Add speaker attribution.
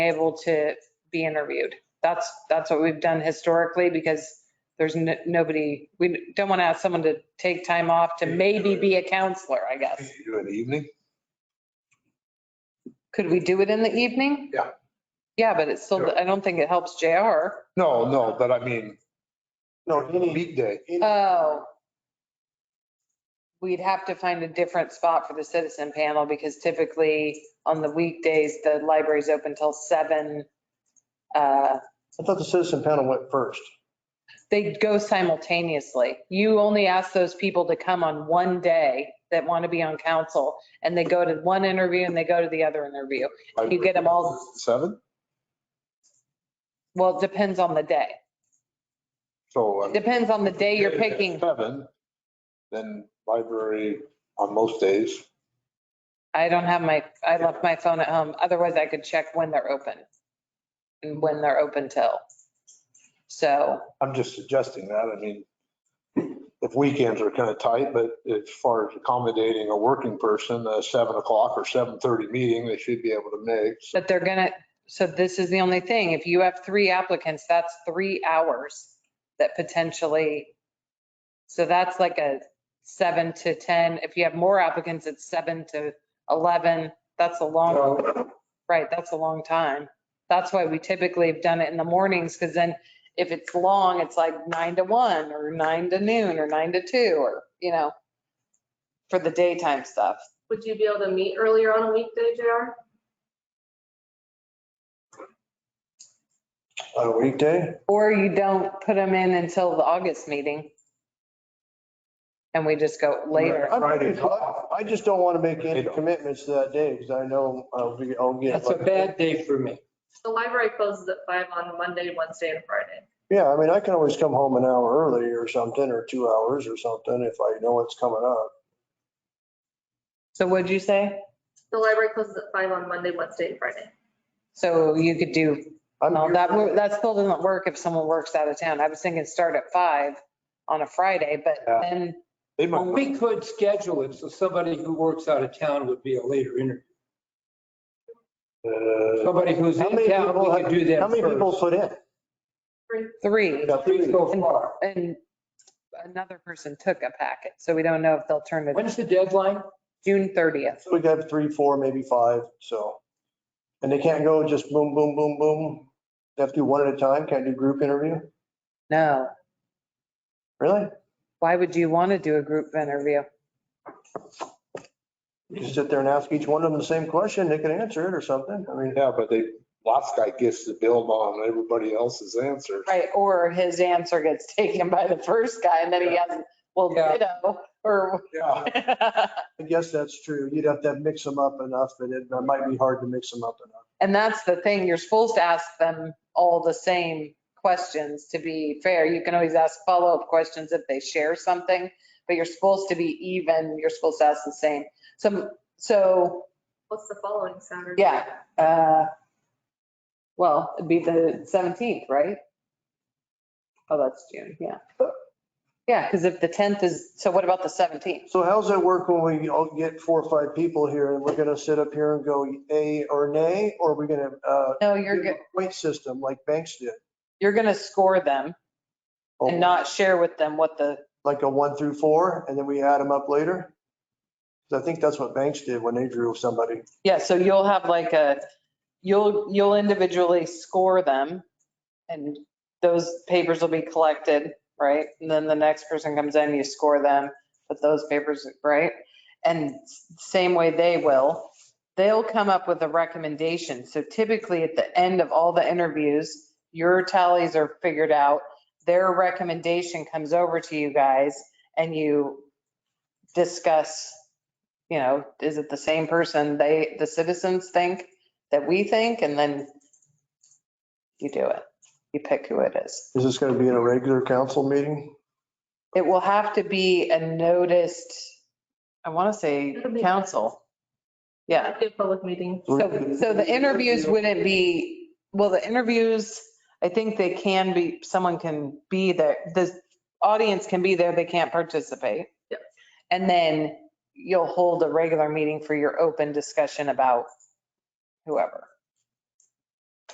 Speaker 1: able to be interviewed. That's, that's what we've done historically because there's n- nobody, we don't want to ask someone to take time off to maybe be a counselor, I guess.
Speaker 2: Can you Do an evening?
Speaker 1: Could we do it in the evening?
Speaker 2: Yeah.
Speaker 1: Yeah, but it's still, I don't think it helps JR.
Speaker 2: No, no, but I mean,
Speaker 3: No, any,
Speaker 2: meet day.
Speaker 3: any,
Speaker 1: Oh. We'd have to find a different spot for the citizen panel because typically on the weekdays, the library's open till seven. Uh,
Speaker 3: I thought the citizen panel went first.
Speaker 1: They go simultaneously. You only ask those people to come on one day that want to be on council and they go to one interview and they go to the other interview. You get them all,
Speaker 2: Seven?
Speaker 1: well, it depends on the day.
Speaker 2: So. um,
Speaker 1: Depends on the day you're
Speaker 2: if it's
Speaker 1: picking.
Speaker 2: Seven, then library on most days.
Speaker 1: I don't have my, I left my phone at home. Otherwise I could check when they're open and when they're open till. So,
Speaker 2: I'm just suggesting that. I mean, if weekends are kind of tight, but as far as accommodating a working person, a seven o'clock or seven thirty meeting, they should be able to make. So
Speaker 1: but they're gonna, so this is the only thing. If you have three applicants, that's three hours that potentially, so that's like a seven to 10. If you have more applicants, it's seven to 11. That's a long, right, that's a long time. That's why we typically have done it in the mornings because then if it's long, it's like nine to one or nine to noon or nine to two or, you know, for the daytime stuff.
Speaker 4: Would you be able to meet earlier on a weekday, JR?
Speaker 3: On a weekday?
Speaker 1: Or you don't put them in until the August meeting. And we just go later.
Speaker 3: I'm
Speaker 2: Friday's off.
Speaker 3: I just don't want to make any
Speaker 2: They don't.
Speaker 3: commitments to that day because I know I'll be, I'll get.
Speaker 5: That's a bad day for me.
Speaker 4: The library closes at five on Monday, Wednesday, and Friday.
Speaker 3: Yeah, I mean, I can always come home an hour early or something, or two hours or something if I know it's coming up.
Speaker 1: So what'd you say?
Speaker 4: The library closes at five on Monday, Wednesday, and Friday.
Speaker 1: So you could do,
Speaker 3: I'm
Speaker 1: no,
Speaker 3: here-
Speaker 1: that, wo- that still doesn't work if someone works out of town. I was thinking start at five on a Friday, but
Speaker 2: Yeah.
Speaker 1: then,
Speaker 2: They might. not-
Speaker 5: We could schedule it so somebody who works out of town would be a later interview.
Speaker 2: Uh,
Speaker 5: Somebody who's
Speaker 3: How
Speaker 5: in
Speaker 3: many
Speaker 5: town,
Speaker 3: people,
Speaker 5: we could do that
Speaker 3: have- how many people
Speaker 5: first.
Speaker 3: put in?
Speaker 1: three,
Speaker 5: Three so far.
Speaker 1: and another person took a packet, so we don't know if they'll turn it,
Speaker 5: When's the deadline?
Speaker 1: June 30th.
Speaker 3: So we got three, four, maybe five, so. And they can't go just boom, boom, boom, boom. They have to do one at a time. Can't do group interview?
Speaker 1: No,
Speaker 3: Really?
Speaker 1: why would you want to do a group interview?
Speaker 3: You just sit there and ask each one of them the same question. They can answer it or something. I mean,
Speaker 2: Yeah, but they, last guy gets the bill on everybody else's answer.
Speaker 1: Right, or his answer gets taken by the first guy and then he has, well,
Speaker 5: Yeah.
Speaker 1: ditto, or.
Speaker 2: Yeah.
Speaker 3: I guess that's true. You'd have to mix them up enough, but it it might be hard to mix them up enough.
Speaker 1: And that's the thing, you're supposed to ask them all the same questions to be fair. You can always ask follow-up questions if they share something, but you're supposed to be even, you're supposed to ask the same. Some, so,
Speaker 4: What's the following Saturday?
Speaker 1: yeah, uh, well, it'd be the 17th, right? Oh, that's June, yeah. Yeah, because if the 10th is, so what about the 17th?
Speaker 3: So how's that work when we all get four or five people here and we're gonna sit up here and go a or nay? Or are we gonna, uh,
Speaker 1: No, you're,
Speaker 3: do
Speaker 1: go-
Speaker 3: a Point system like banks did?
Speaker 1: you're going to score them
Speaker 3: Or Oh.
Speaker 1: and not share with them what the,
Speaker 3: Like a one through four and then we add them up later? 'Cause I think that's what banks did when they drew somebody.
Speaker 1: yeah, so you'll have like a, you'll, you'll individually score them and those papers will be collected, right? And then the next person comes in, you score them, but those papers, right? And s- same way they will, they'll come up with a recommendation. So typically at the end of all the interviews, your tallies are figured out. Their recommendation comes over to you guys and you discuss, you know, is it the same person they, the citizens think that we think? And then you do it. You pick who it is.
Speaker 3: Is this gonna be in a regular council meeting?
Speaker 1: It will have to be a noticed, I want to say
Speaker 4: It'll be-
Speaker 1: council. Yeah.
Speaker 4: It'd be a public meeting.
Speaker 1: So, so the interviews wouldn't be, well, the interviews, I think they can be, someone can be there. The audience can be there, they can't participate.
Speaker 4: Yep.
Speaker 1: And then you'll hold a regular meeting for your open discussion about whoever.